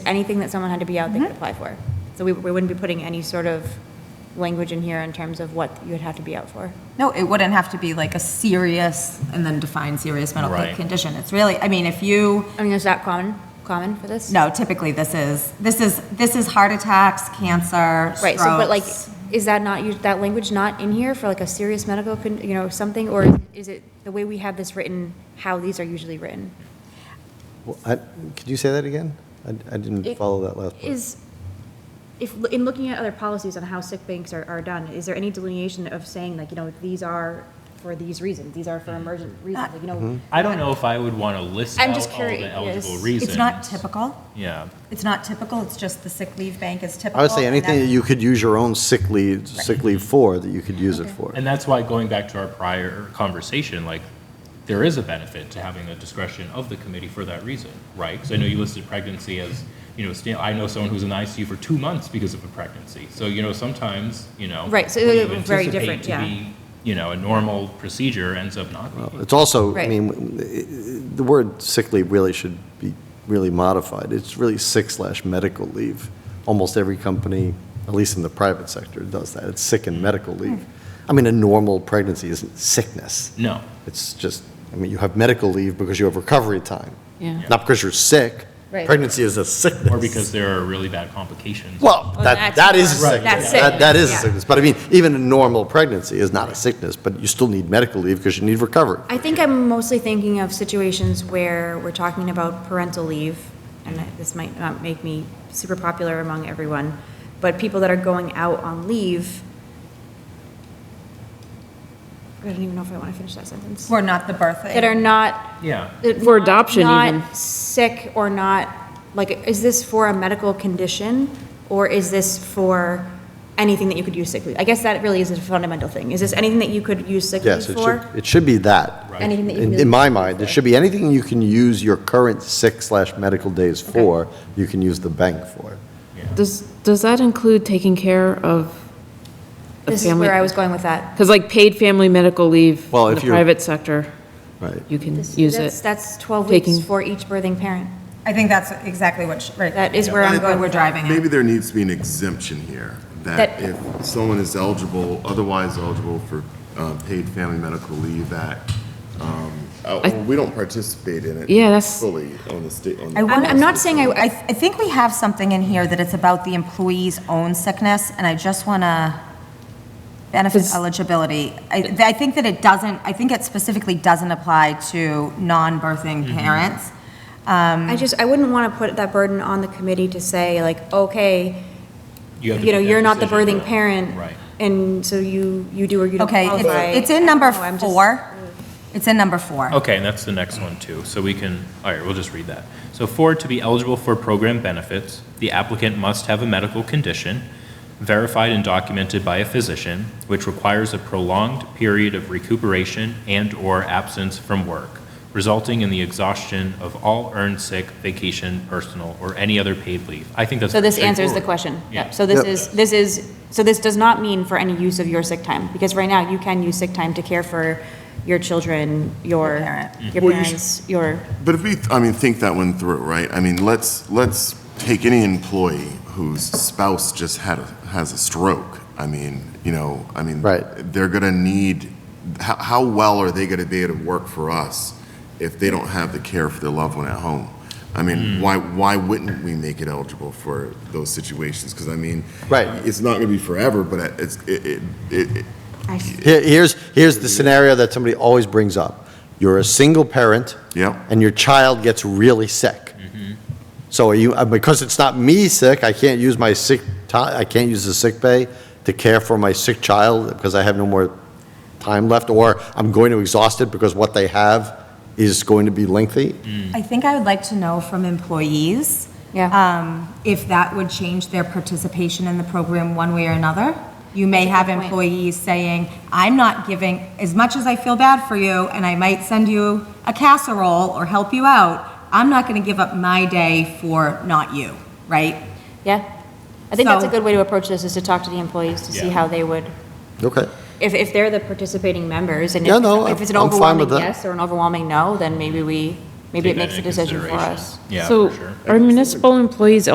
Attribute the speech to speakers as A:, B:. A: anything that someone had to be out, they could apply for. So we, we wouldn't be putting any sort of language in here in terms of what you would have to be out for.
B: No, it wouldn't have to be like a serious and then define serious medical
C: Right.
B: condition. It's really, I mean, if you,
A: I mean, is that common, common for this?
B: no, typically this is, this is, this is heart attacks, cancer,
A: Right, so, but like,
B: strokes.
A: is that not, us- that language not in here for like a serious medical, con- you know, something? Or is it the way we have this written, how these are usually written?
D: Well, I- Could you say that again? I I didn't
A: It-
D: follow that last part.
A: Is, if, in looking at other policies on how sick banks are, are done, is there any delineation of saying like, you know, these are for these reasons, these are for
D: Mm-hmm.
A: emergent reasons, like, you know?
C: I don't know if I would want to list
A: I'm
C: out
A: just
C: all the
A: curious.
C: eligible
A: It's
C: reasons.
B: It's not typical.
C: Yeah,
B: It's not typical. It's just the sick leave bank is typical.
D: I would say
B: and
D: anything that
B: that's-
D: you could use your own sick leave, sick leave for, that you could use it for.
C: and that's why going back to our prior conversation, like, there is a benefit to having the discretion of the committee for that reason, right? Because I know you listed pregnancy as, you know, sta- I know someone who's in the ICU for two months because of a pregnancy. So, you know, sometimes, you know.
A: Right, so
C: what you
A: they're very
C: anticipate
A: different,
C: to
A: yeah.
C: be, You know, a normal procedure ends up not being.
D: It's also, I
A: Right.
D: mean, the word sick leave really should be really modified. It's really sick slash medical leave. Almost every company, at least in the private sector, does that. It's sick and medical leave.
A: Hmm.
D: I mean, a normal pregnancy isn't sickness.
C: No,
D: It's just, I mean, you have medical leave because you have recovery time.
E: Yeah.
D: Not because you're sick.
A: Right.
D: Pregnancy is a sickness.
C: or because there are really bad complications.
D: Well,
A: Well, that's
D: that, that is a
A: more-
D: sickness.
A: That's
D: That- That is a
A: sickness, yeah.
D: sickness. But I mean, even a normal pregnancy is not a sickness, but you still need medical leave because you need recovery.
A: I think I'm mostly thinking of situations where we're talking about parental leave, and I- this might not make me super popular among everyone, but people that are going out on leave. I don't even know if I want to finish that sentence.
B: We're not the birth.
A: That are not.
C: Yeah,
A: that
E: For adoption even.
A: Not sick or not, like, is this for a medical condition? Or is this for anything that you could use sick leave? I guess that really is a fundamental thing. Is this anything that you could use sick leave
D: Yes, it should,
A: for?
D: it should be that.
A: Anything that you
D: In,
A: really
D: in my
A: need
D: mind,
A: for.
D: it should be anything you can use your current sick slash medical days for, you can use the bank for.
E: Does, does that include taking care of a
A: This is where I
E: family?
A: was going with that.
E: Because like paid family medical leave
D: Well,
E: in the
D: if you're-
E: private sector,
D: Right.
E: you can
A: This-
E: use
A: that's-
E: it.
A: That's 12
E: Taking-
A: weeks for each birthing parent.
B: I think that's exactly what, she- right.
A: That is where I'm
B: Where
A: going
B: we're
A: with that.
B: driving at.
F: Maybe there needs to be an exemption here, that
A: That-
F: if someone is eligible, otherwise eligible for uh, paid family medical leave act, um, uh, well, we don't participate in it
E: Yeah, that's-
F: fully on the state. on the-
B: I
A: I'm
B: wonder-
A: I'm not saying
B: I,
A: I, I-
B: I think we have something in here that it's about the employee's own sickness, and I just want to benefit
E: Does-
B: eligibility. I, I think that it doesn't, I think it specifically doesn't apply to non-birthing parents. Um,
A: I just, I wouldn't want to put that burden on the committee to say like, okay,
C: have to
A: you know,
C: make that
A: you're not the
C: decision,
A: birthing
C: but-
A: parent.
C: Right.
A: And so you, you do or you don't
B: Okay,
A: qualify.
B: it's, it's
A: I
B: in
A: don't
B: number
A: know, I'm just-
B: four. It's in number four.
C: Okay, and that's the next one too, so we can, all right, we'll just read that. So for to be eligible for program benefits, the applicant must have a medical condition verified and documented by a physician, which requires a prolonged period of recuperation and/or absence from work, resulting in the exhaustion of all earned sick, vacation, personal, or any other paid leave. I think that's
A: So this
C: pretty
A: answers the
C: straightforward.
A: question.
C: Yeah.
A: Yep. So this
D: Yep.
A: is, this is, so this does not mean for any use of your sick time, because right now you can use sick time to care for your children, your,
B: parent.
A: your
F: Well, you
A: parents, your,
F: But if we, I mean, think that one through, right? I mean, let's, let's take any employee whose spouse just had, a has a stroke. I mean, you know, I mean.
D: Right.
F: They're going to need, how, how well are they going to be able to work for us if they don't have the care for their loved one at home? I mean,
D: Mm.
F: why, why wouldn't we make it eligible for those situations? Because I mean.
D: Right.
F: It's not going to be forever, but it's, it, it- it, it-
D: Here- here's, here's the scenario that somebody always brings up. You're a single parent.
F: Yep.
D: And your child gets really sick. So are you, uh, because it's not me sick, I can't use my sick ti, I can't use the sick pay to care for my sick child because I have no more time left, or I'm going to exhaust it because what they have is going to be lengthy.
B: I think I would like to know from employees,
A: yeah.
B: um, if that would change their participation in the program one way or another. You may have
A: point.
B: employees saying, I'm not giving, as much as I feel bad for you, and I might send you a casserole or help you out, I'm not gonna give up my day for not you, right?
A: Yeah. I think that's a
B: So-
A: good way to approach this, is to talk to the employees to see
C: Yeah.
A: how they would,
D: Okay.
A: if, if they're the participating members, and if
D: Yeah, no,
A: if it's an
D: I'm fine
A: overwhelming
D: with that.
A: yes or an overwhelming no, then maybe we, maybe
C: Take
A: it
C: that
A: makes a
C: into
A: decision for
C: consideration.
A: us.
C: Yeah, for
E: So
C: sure.
E: are municipal employees